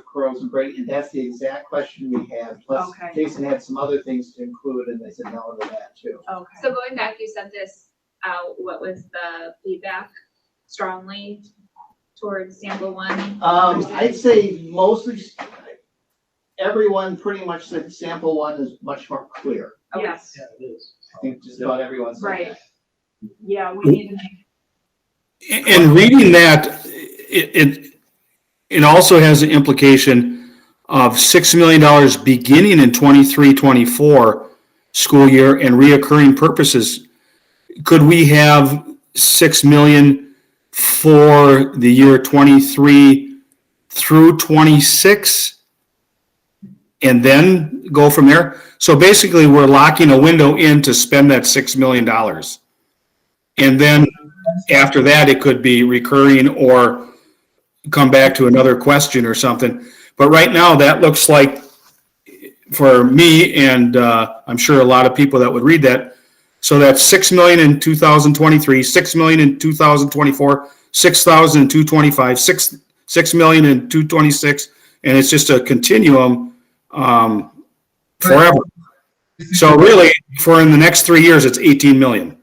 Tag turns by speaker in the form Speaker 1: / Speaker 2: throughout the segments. Speaker 1: curls and braid, and that's the exact question we had. Plus,
Speaker 2: Okay.
Speaker 1: Jason had some other things to include, and they said no to that too.
Speaker 2: Okay.
Speaker 3: So going back, you sent this out, what was the feedback strongly towards sample one?
Speaker 1: Um, I'd say mostly, everyone pretty much said sample one is much more clear.
Speaker 3: Okay.
Speaker 2: Yes,
Speaker 4: it is.
Speaker 1: I think just about everyone said
Speaker 3: Right.
Speaker 1: that.
Speaker 2: yeah, we need to make,
Speaker 5: And reading that, it, it, it also has the implication of six million dollars beginning in twenty-three, twenty-four school year and reoccurring purposes. Could we have six million for the year twenty-three through twenty-six? And then go from there? So basically, we're locking a window in to spend that six million dollars. And then after that, it could be recurring or come back to another question or something. But right now, that looks like, for me, and uh, I'm sure a lot of people that would read that, so that's six million in two thousand twenty-three, six million in two thousand twenty-four, six thousand in two twenty-five, six, six million in two twenty-six, and it's just a continuum um, forever. So really, for in the next three years, it's eighteen million.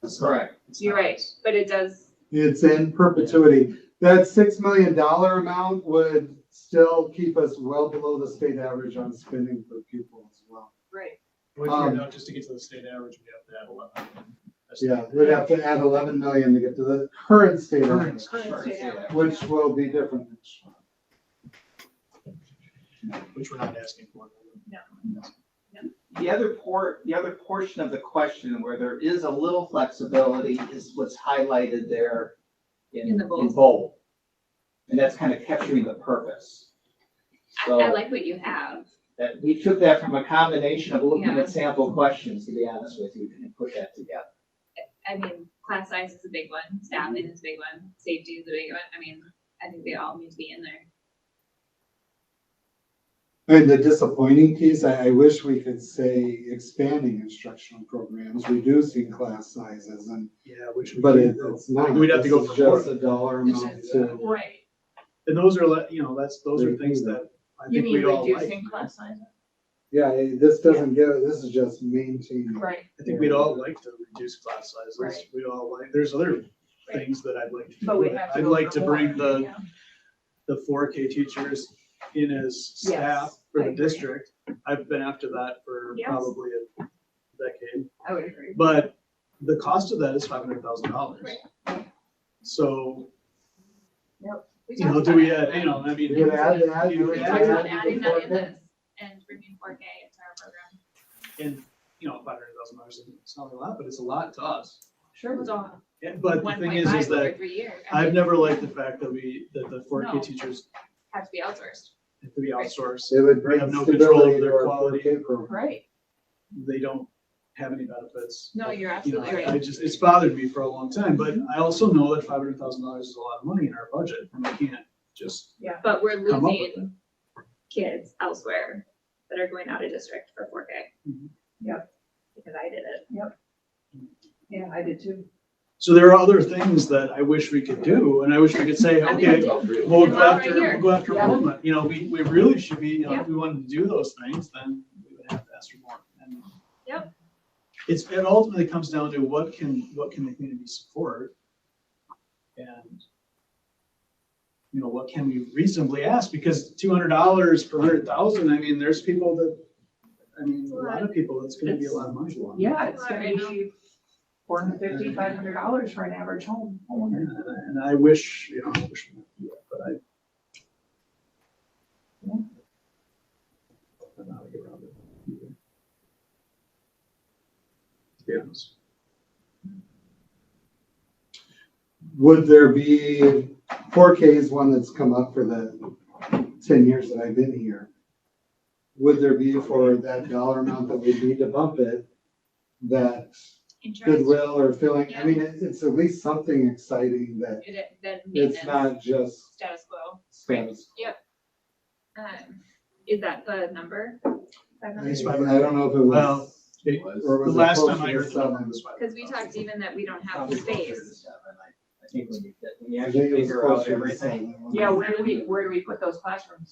Speaker 1: That's correct.
Speaker 3: You're right, but it does,
Speaker 6: It's in perpetuity. That six million dollar amount would still keep us well below the state average on spending per pupil as well.
Speaker 2: right,
Speaker 4: Which, you
Speaker 6: Um,
Speaker 4: know, just to get to the state average, we have to add eleven. That's-
Speaker 6: Yeah, we'd have to add eleven million to get to the current state average, which will be different. next year.
Speaker 4: Which we're not asking for.
Speaker 1: The other port, the other portion of the question where there is a little flexibility is what's highlighted there in,
Speaker 3: In the bold.
Speaker 1: in bold. And that's kind of capturing the purpose.
Speaker 3: I, I
Speaker 1: So-
Speaker 3: like what you have.
Speaker 1: That, we took that from a combination of looking
Speaker 3: Yeah.
Speaker 1: at sample questions, to be honest with you, and put that together.
Speaker 3: I mean, class size is a big one, staffing is a big one, safety is a big one. I mean, I think they all need to be in there.
Speaker 6: And the disappointing piece, I, I wish we could say expanding instructional programs, reducing class sizes and,
Speaker 4: Yeah, which.
Speaker 6: but it- it's not.
Speaker 4: We'd have to go
Speaker 6: This is
Speaker 4: for more.
Speaker 6: Just a dollar
Speaker 4: It's
Speaker 6: amount to.
Speaker 3: Right.
Speaker 4: And those are, le- you know, that's, those are things that I think we all like.
Speaker 2: class size?
Speaker 6: Yeah, it- this doesn't give, this is just maintaining.
Speaker 2: Right.
Speaker 4: I think we'd all like to reduce class sizes.
Speaker 2: Right.
Speaker 4: We'd all like, there's other things that I'd like to
Speaker 2: But we
Speaker 4: do.
Speaker 2: have to.
Speaker 4: I'd
Speaker 2: go
Speaker 4: like
Speaker 2: for
Speaker 4: to
Speaker 2: more,
Speaker 4: bring the,
Speaker 2: yeah.
Speaker 4: the four K teachers in as
Speaker 2: Yes,
Speaker 4: staff for
Speaker 2: I
Speaker 4: the
Speaker 2: agree.
Speaker 4: district. I've been after that for
Speaker 2: Yes.
Speaker 4: probably a decade.
Speaker 2: I would agree.
Speaker 4: But the cost of that is five hundred thousand dollars. So,
Speaker 2: We
Speaker 4: you
Speaker 2: talked
Speaker 4: know, do
Speaker 2: about
Speaker 4: we
Speaker 2: it.
Speaker 4: add, you know, I mean.
Speaker 6: You could add that,
Speaker 4: you
Speaker 6: you
Speaker 4: could
Speaker 6: could
Speaker 3: We
Speaker 4: add
Speaker 3: talked about
Speaker 4: that.
Speaker 3: adding that in this and bringing four K into our program.
Speaker 4: And, you know, five hundred thousand dollars, it's not a lot, but it's a lot to us.
Speaker 2: Sure,
Speaker 3: It was all
Speaker 4: And, but the
Speaker 3: one
Speaker 4: thing
Speaker 3: point
Speaker 4: is, is
Speaker 3: five over
Speaker 4: that
Speaker 3: three years. I
Speaker 4: I've
Speaker 3: mean,
Speaker 4: never liked the fact that we, that the four K
Speaker 3: No.
Speaker 4: teachers
Speaker 3: Have to be outsourced.
Speaker 4: have to be outsourced.
Speaker 6: It would
Speaker 4: have
Speaker 6: bring
Speaker 4: no control
Speaker 6: stability
Speaker 4: over
Speaker 6: to
Speaker 4: their
Speaker 6: our
Speaker 4: quality.
Speaker 6: 4K program.
Speaker 2: right,
Speaker 4: They don't have any benefits.
Speaker 3: No, you're
Speaker 4: You know,
Speaker 3: absolutely
Speaker 4: I-
Speaker 3: right.
Speaker 4: I just, it's bothered me for a long time, but I also know that five hundred thousand dollars is a lot of money in our budget and we can't just
Speaker 3: But we're
Speaker 4: come up with it.
Speaker 3: losing kids elsewhere that are going out of district for four K.
Speaker 4: Mhm.
Speaker 2: Yep.
Speaker 3: Because I did it.
Speaker 2: yeah, I did too.
Speaker 4: So there are other things that I wish we could do, and I wish we could say,
Speaker 3: I think I
Speaker 4: okay,
Speaker 3: did. Well,
Speaker 4: we'll go
Speaker 3: right
Speaker 4: after,
Speaker 3: here.
Speaker 4: we'll go after
Speaker 2: Yeah.
Speaker 4: enrollment, you know, we, we really should be, you know,
Speaker 3: Yeah.
Speaker 4: if we wanted to do those things, then we would have to ask for more. And
Speaker 3: Yep.
Speaker 4: It's, it ultimately comes down to what can, what can the community support? And, you know, what can we reasonably ask, because two hundred dollars per hundred thousand, I mean, there's people that, I mean, a lot of people, that's gonna be a lot of money.
Speaker 2: Yeah, it's gonna be four hundred fifty, five hundred dollars for an average home, homeowner.
Speaker 4: And and I wish, you know, I wish, we could do that, but I. I don't know how to get around it either. To be honest.
Speaker 6: Would there be, four K is one that's come up for the ten years that I've been here. Would there be for that dollar amount that we need to bump it, that
Speaker 3: Insurance,
Speaker 6: goodwill or feeling, I mean, it- it's at least something exciting that
Speaker 3: it, it- then
Speaker 6: it's
Speaker 3: maintenance,
Speaker 6: not just.
Speaker 3: status quo.
Speaker 1: Spans.
Speaker 3: Um, Is that the number?
Speaker 6: I
Speaker 3: Because
Speaker 4: It's fine.
Speaker 6: I don't know if it
Speaker 4: Well,
Speaker 6: was.
Speaker 4: it-
Speaker 6: or
Speaker 4: The
Speaker 6: was it
Speaker 4: last
Speaker 6: closer
Speaker 4: time I
Speaker 6: to
Speaker 4: heard the number
Speaker 6: seven?
Speaker 4: was five.
Speaker 3: we talked even that we don't have the space.
Speaker 7: I think we need to, we
Speaker 6: I
Speaker 7: actually
Speaker 6: think it was
Speaker 7: figure out
Speaker 6: closer to
Speaker 7: everything.
Speaker 6: seven.
Speaker 1: Yeah, where do we, where do we put those classrooms?